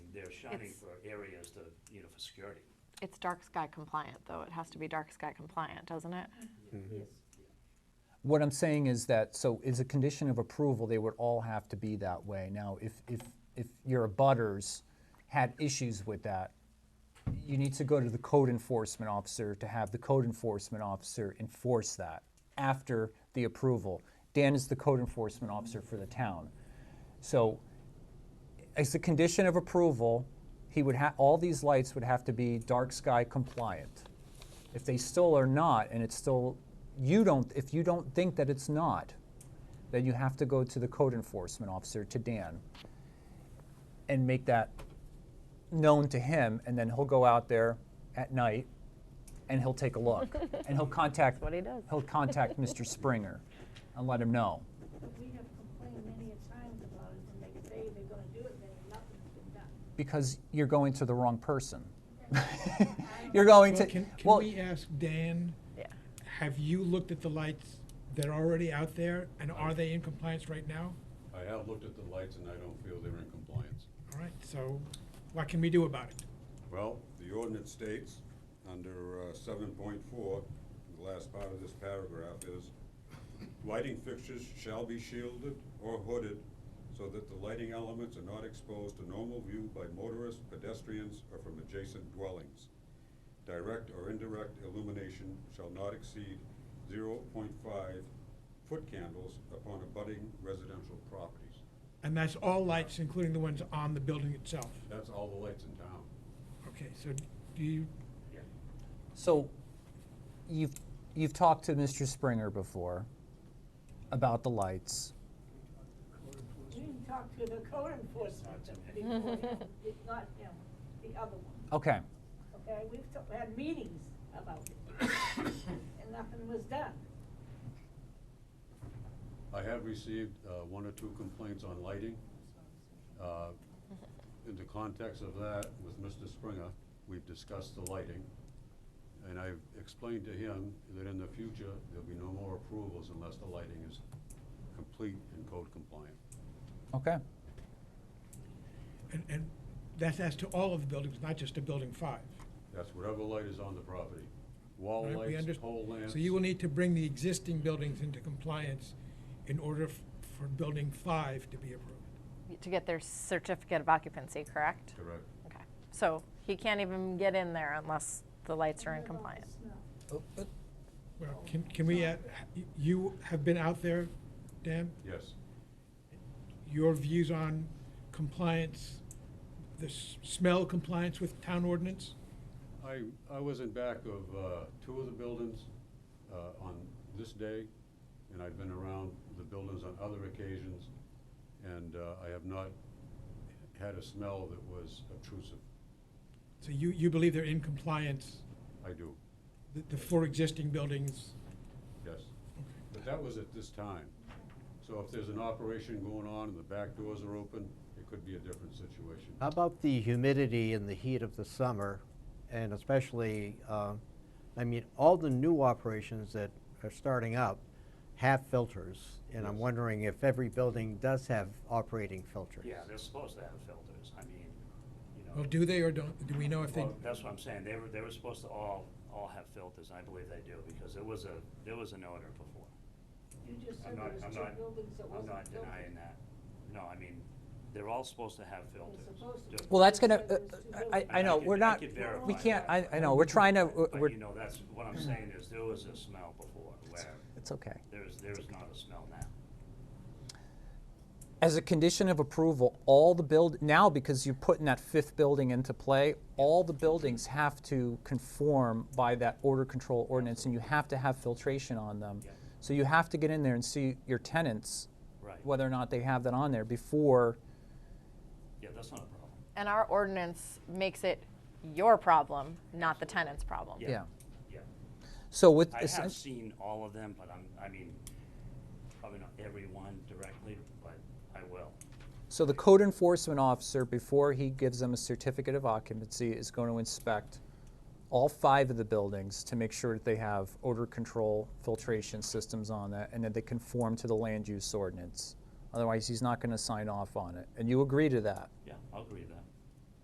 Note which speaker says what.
Speaker 1: shining
Speaker 2: It's-
Speaker 1: for areas to, you know, for security.
Speaker 2: It's dark sky compliant, though. It has to be dark sky compliant, doesn't it?
Speaker 3: What I'm saying is that, so as a condition of approval, they would all have to be that way. Now, if, if, if your abutters had issues with that, you need to go to the code enforcement officer to have the code enforcement officer enforce that after the approval. Dan is the code enforcement officer for the town. So as a condition of approval, he would have, all these lights would have to be dark sky compliant. If they still are not, and it's still, you don't, if you don't think that it's not, then you have to go to the code enforcement officer, to Dan, and make that known to him, and then he'll go out there at night, and he'll take a look, and he'll contact.
Speaker 2: what he does.
Speaker 3: He'll contact Mr. Springer, and let him know.
Speaker 4: But we have complained many a times about it, and they say they're gonna do it, then nothing's been done.
Speaker 3: because you're going to the wrong person. you're going
Speaker 5: Well,
Speaker 3: to
Speaker 5: Can, can
Speaker 3: well.
Speaker 5: we uh, ask Dan,
Speaker 2: Yeah.
Speaker 5: have you looked at the lights that are already out there, and are they in compliance right now?
Speaker 6: I have looked at the lights and I don't feel they're in compliance.
Speaker 5: All right, so what can we do about it?
Speaker 6: Well, the ordinance states, under uh, seven point four, the last part of this paragraph is, lighting fixtures shall be shielded or hooded so that the lighting elements are not exposed to normal view by motorists, pedestrians, or from adjacent dwellings. Direct or indirect illumination shall not exceed zero point five foot candles upon abutting residential properties.
Speaker 5: And that's all lights, including the ones on the building itself.
Speaker 6: That's all the lights in town.
Speaker 5: Okay, so do you,
Speaker 3: so you've you've talked to Mr. Springer before about the lights.
Speaker 4: You can talk to the code enforcement before him, it's not him, the other one,
Speaker 3: Okay.
Speaker 4: okay? We've t- had meetings about it, and nothing was done.
Speaker 6: I have received uh, one or two complaints on lighting. Uh, In the context of that, with Mr. Springer, we've discussed the lighting, and I've explained to him that in the future, there'll be no more approvals unless the lighting is complete and code compliant.
Speaker 3: Okay.
Speaker 5: and, and that's as to all of the buildings, not just to building five.
Speaker 6: That's whatever light is on the property, wall
Speaker 5: right? We
Speaker 6: lights,
Speaker 5: underst-
Speaker 6: pole lamps.
Speaker 5: So you will need to bring the existing buildings into compliance in order f- for building five to be approved.
Speaker 2: To get their certificate of occupancy, correct?
Speaker 6: Correct.
Speaker 2: Okay. So he can't even get in there unless the lights are in compliance.
Speaker 1: Oh,
Speaker 5: Well, can, can we, add- you have been out there, Dan?
Speaker 6: Yes,
Speaker 5: your views on compliance, the s- smell compliance with town ordinance?
Speaker 6: I, I was in back of uh, two of the buildings uh, on this day, and I've been around the buildings on other occasions, and uh, I have not had a smell that was obtrusive.
Speaker 5: So you, you believe they're in compliance,
Speaker 6: I do,
Speaker 5: the, the four existing buildings?
Speaker 6: yes. But that was at this time. So if there's an operation going on and the back doors are open, it could be a different situation.
Speaker 7: How about the humidity and the heat of the summer, and especially, uh, I mean, all the new operations that are starting up have filters, and I'm
Speaker 6: Yes.
Speaker 7: wondering if every building does have operating filters.
Speaker 1: Yeah, they're supposed to have filters, I mean, you know.
Speaker 5: Well, do they or don't, do we know if they?
Speaker 1: Well, that's what I'm saying, they were, they were supposed to all, all have filters, and I believe they do, because there was a, there was an odor before.
Speaker 4: You just
Speaker 1: I'm
Speaker 4: said
Speaker 1: not,
Speaker 4: there was
Speaker 1: I'm
Speaker 4: two
Speaker 1: not,
Speaker 4: buildings that
Speaker 1: I'm
Speaker 4: wasn't
Speaker 1: not
Speaker 4: built.
Speaker 1: denying that. No, I mean, they're all supposed to have filters.
Speaker 4: supposed to
Speaker 1: Do-
Speaker 4: be.
Speaker 3: Well, that's gonna. uh,
Speaker 4: There was two
Speaker 3: I, I
Speaker 1: And
Speaker 3: know
Speaker 1: could-
Speaker 3: we're
Speaker 1: I
Speaker 3: not.
Speaker 1: could verify
Speaker 3: we can't. I,
Speaker 1: that.
Speaker 3: I know we're trying to. uh, We're.
Speaker 1: But you know, that's, what I'm saying is, there was a smell before, where
Speaker 3: it's okay.
Speaker 1: there's, there is not a smell now.
Speaker 3: As a condition of approval, all the build now because you're putting that fifth building into play, all the buildings have to conform by that order control ordinance, and you have to have filtration on them.
Speaker 1: Yeah.
Speaker 3: So you have to get in there and see your tenants,
Speaker 1: Right.
Speaker 3: whether or not they have that on there before.
Speaker 1: Yeah, that's not a problem.
Speaker 2: And our ordinance makes it your problem, not the tenant's problem.
Speaker 1: Yeah.
Speaker 3: Yeah.
Speaker 1: Yeah.
Speaker 3: So with
Speaker 1: I
Speaker 3: this-
Speaker 1: have seen all of them, but I'm, I mean, probably not every one directly, but I will.
Speaker 3: so the code enforcement officer before he gives them a certificate of occupancy is going to inspect all five of the buildings to make sure that they have odor control filtration systems on that and that they conform to the land use ordinance. Otherwise, he's not going to sign off on it. And you agree to that?
Speaker 1: Yeah, I'll agree with that.